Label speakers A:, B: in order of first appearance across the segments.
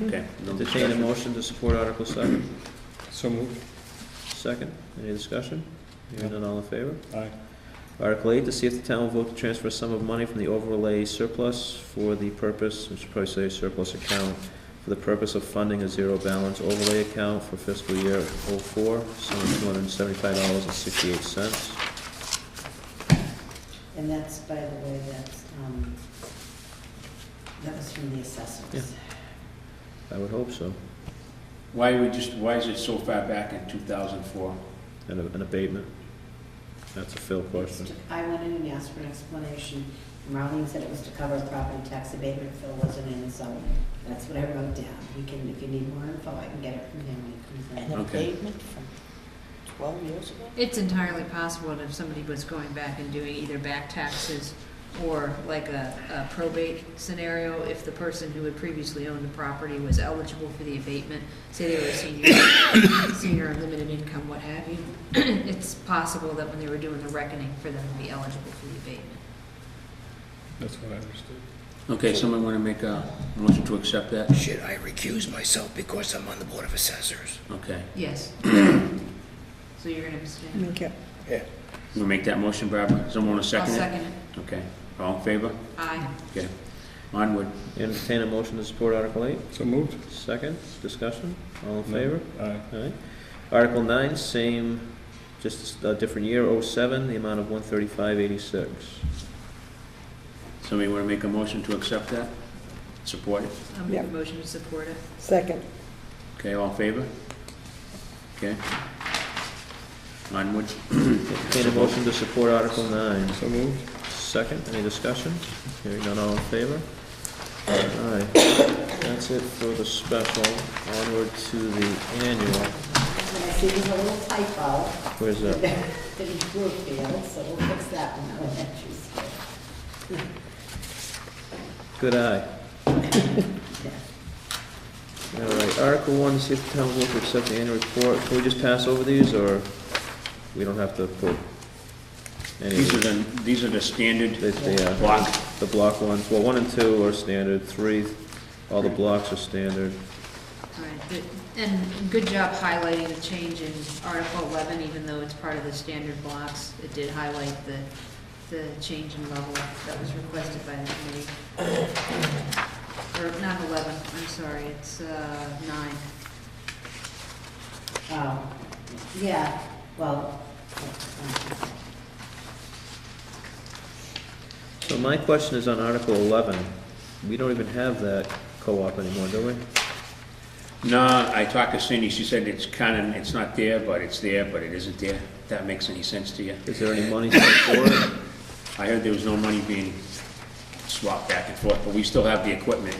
A: Okay,
B: No
A: entertain a
B: discussion.
A: motion to support Article seven.
C: So moved.
A: Second, any discussion? Hearing none, all in favor?
C: Aye.
A: Article eight, to see if the town will vote to transfer a sum of money from the overlay surplus for the purpose, we should probably say surplus account, for the purpose of funding a zero balance overlay account for fiscal year oh four, sum of two hundred and seventy-five dollars and sixty-eight cents.
D: And that's, by the way, that's, um, that was from the assessors.
A: I would hope so,
B: Why we just, why is it so far back in 2004?
A: and a- an abatement. That's a Phil question.
D: I went in and asked for an explanation. Marlene said it was to cover property tax abatement, Phil wasn't in, so that's what I wrote down. We can, if you need more info, I can get it from him when he comes
E: An
D: in.
B: Okay.
E: abatement from 12 years ago?
F: It's entirely possible that if somebody was going back and doing either back taxes or like a, a probate scenario, if the person who had previously owned the property was eligible for the abatement, say they were a senior, senior or limited income, what have you, it's possible that when they were doing the reckoning for them to be eligible for the abatement.
C: That's what I understood.
B: Okay, someone want to make a motion to accept that?
G: Should I recuse myself because I'm on the Board of Assessors?
B: Okay,
F: Yes. So you're gonna abstain?
E: Make it.
G: Yeah.
B: we make that motion, Barbara? Someone want to
F: I'll
B: second it?
F: second it.
B: Okay, all in favor?
F: Aye.
B: Okay, onward.
A: Entertain a motion to support Article eight.
C: So moved.
A: Second, discussion, all in favor?
C: Aye.
A: Alright. Article nine, same, just a different year, oh seven, the amount of one thirty-five eighty-six.
B: Somebody want to make a motion to accept that? Support it?
F: I'll make a
E: Yep.
F: motion to support it.
E: Second.
B: Okay, all in favor? Okay. Onward.
A: Entertain a motion to support Article nine.
C: So moved.
A: Second, any discussion? Hearing none, all in favor? Alright, that's it for the special, onward to the annual,
D: And I see there's a little typo,
A: where's
D: that
A: that?
D: didn't prove Phil, so we'll fix that one, I'll let you see.
A: Good eye.
D: Yeah.
A: Alright, Article one, to see if the town will vote to accept the annual report, can we just pass over these, or we don't have to put any of
B: These are
A: these?
B: the, these are the standard
A: They- they, uh,
B: block.
A: The block ones, well, one and two are standard, three, all the blocks are standard.
F: Right, good. and good job highlighting the change in Article 11, even though it's part of the standard blocks. It did highlight the, the change in level that was requested by the committee. Or not 11, I'm sorry, it's uh, 9.
D: Oh, yeah, well,
A: So my question is on Article eleven, we don't even have that co-op anymore, do we?
B: No, I talked to Cindy, she said it's kind of, it's not there, but it's there, but it isn't there. If That makes any sense to you?
A: Is there any money set for it?
B: I heard there was no money being swapped back and forth, but we still have the equipment.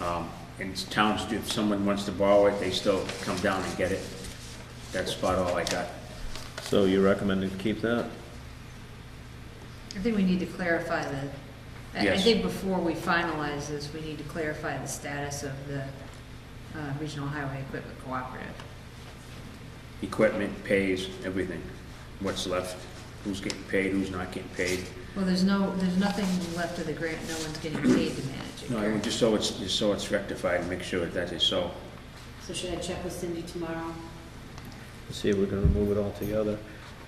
B: Um, And towns, do- if someone wants to borrow it, they still come down and get it. That's about all I got.
A: So you recommend to keep that?
F: I think we need to clarify the, I- I
B: Yes.
F: think before we finalize this, we need to clarify the status of the uh, Regional Highway Equipment Cooperative.
B: Equipment pays everything, what's left, who's getting paid, who's not getting paid.
F: Well, there's no, there's nothing left of the grant, no one's getting paid to manage it,
B: No, I
F: correct?
B: mean, just so it's, just so it's rectified, and make sure that is so.
D: so should I check with Cindy tomorrow?
A: See if we can remove it altogether.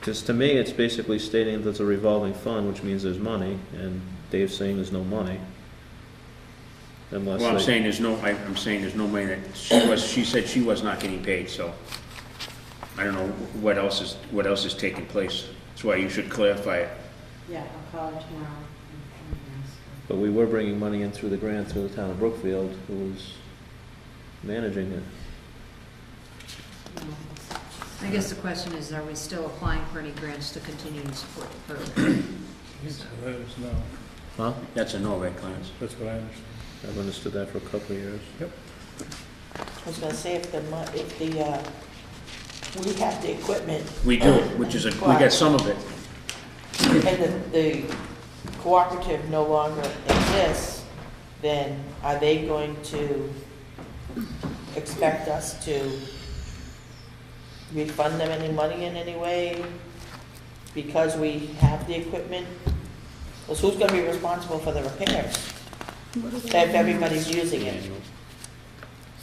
A: Because to me, it's basically stating that it's a revolving fund, which means there's money, and Dave's saying there's no money. Unless,
B: Well, I'm
A: they-
B: saying there's no, I- I'm saying there's no money that, she was, she said she was not getting paid, so I don't know what else is, what else is taking place. That's why you should clarify it.
D: Yeah, I'll call her tomorrow. and ask her.
A: but we were bringing money in through the grant through the town of Brookfield, who was managing it.
D: No,
F: I guess the question is, are we still applying for any grants to continue to support the program?
C: Yes, that is no.
A: Huh?
B: That's a no, right, Clarence?
C: That's what I understood.
A: I've understood that for a couple of years.
E: I was gonna say, if the, mon- if the, uh, we have the equipment
B: We do, which is, a we get some of it.
E: and the, the cooperative no longer exists, then are they going to expect us to refund them any money in any way because we have the equipment? Because who's gonna be responsible for the repairs? If everybody's using it.
B: Annual.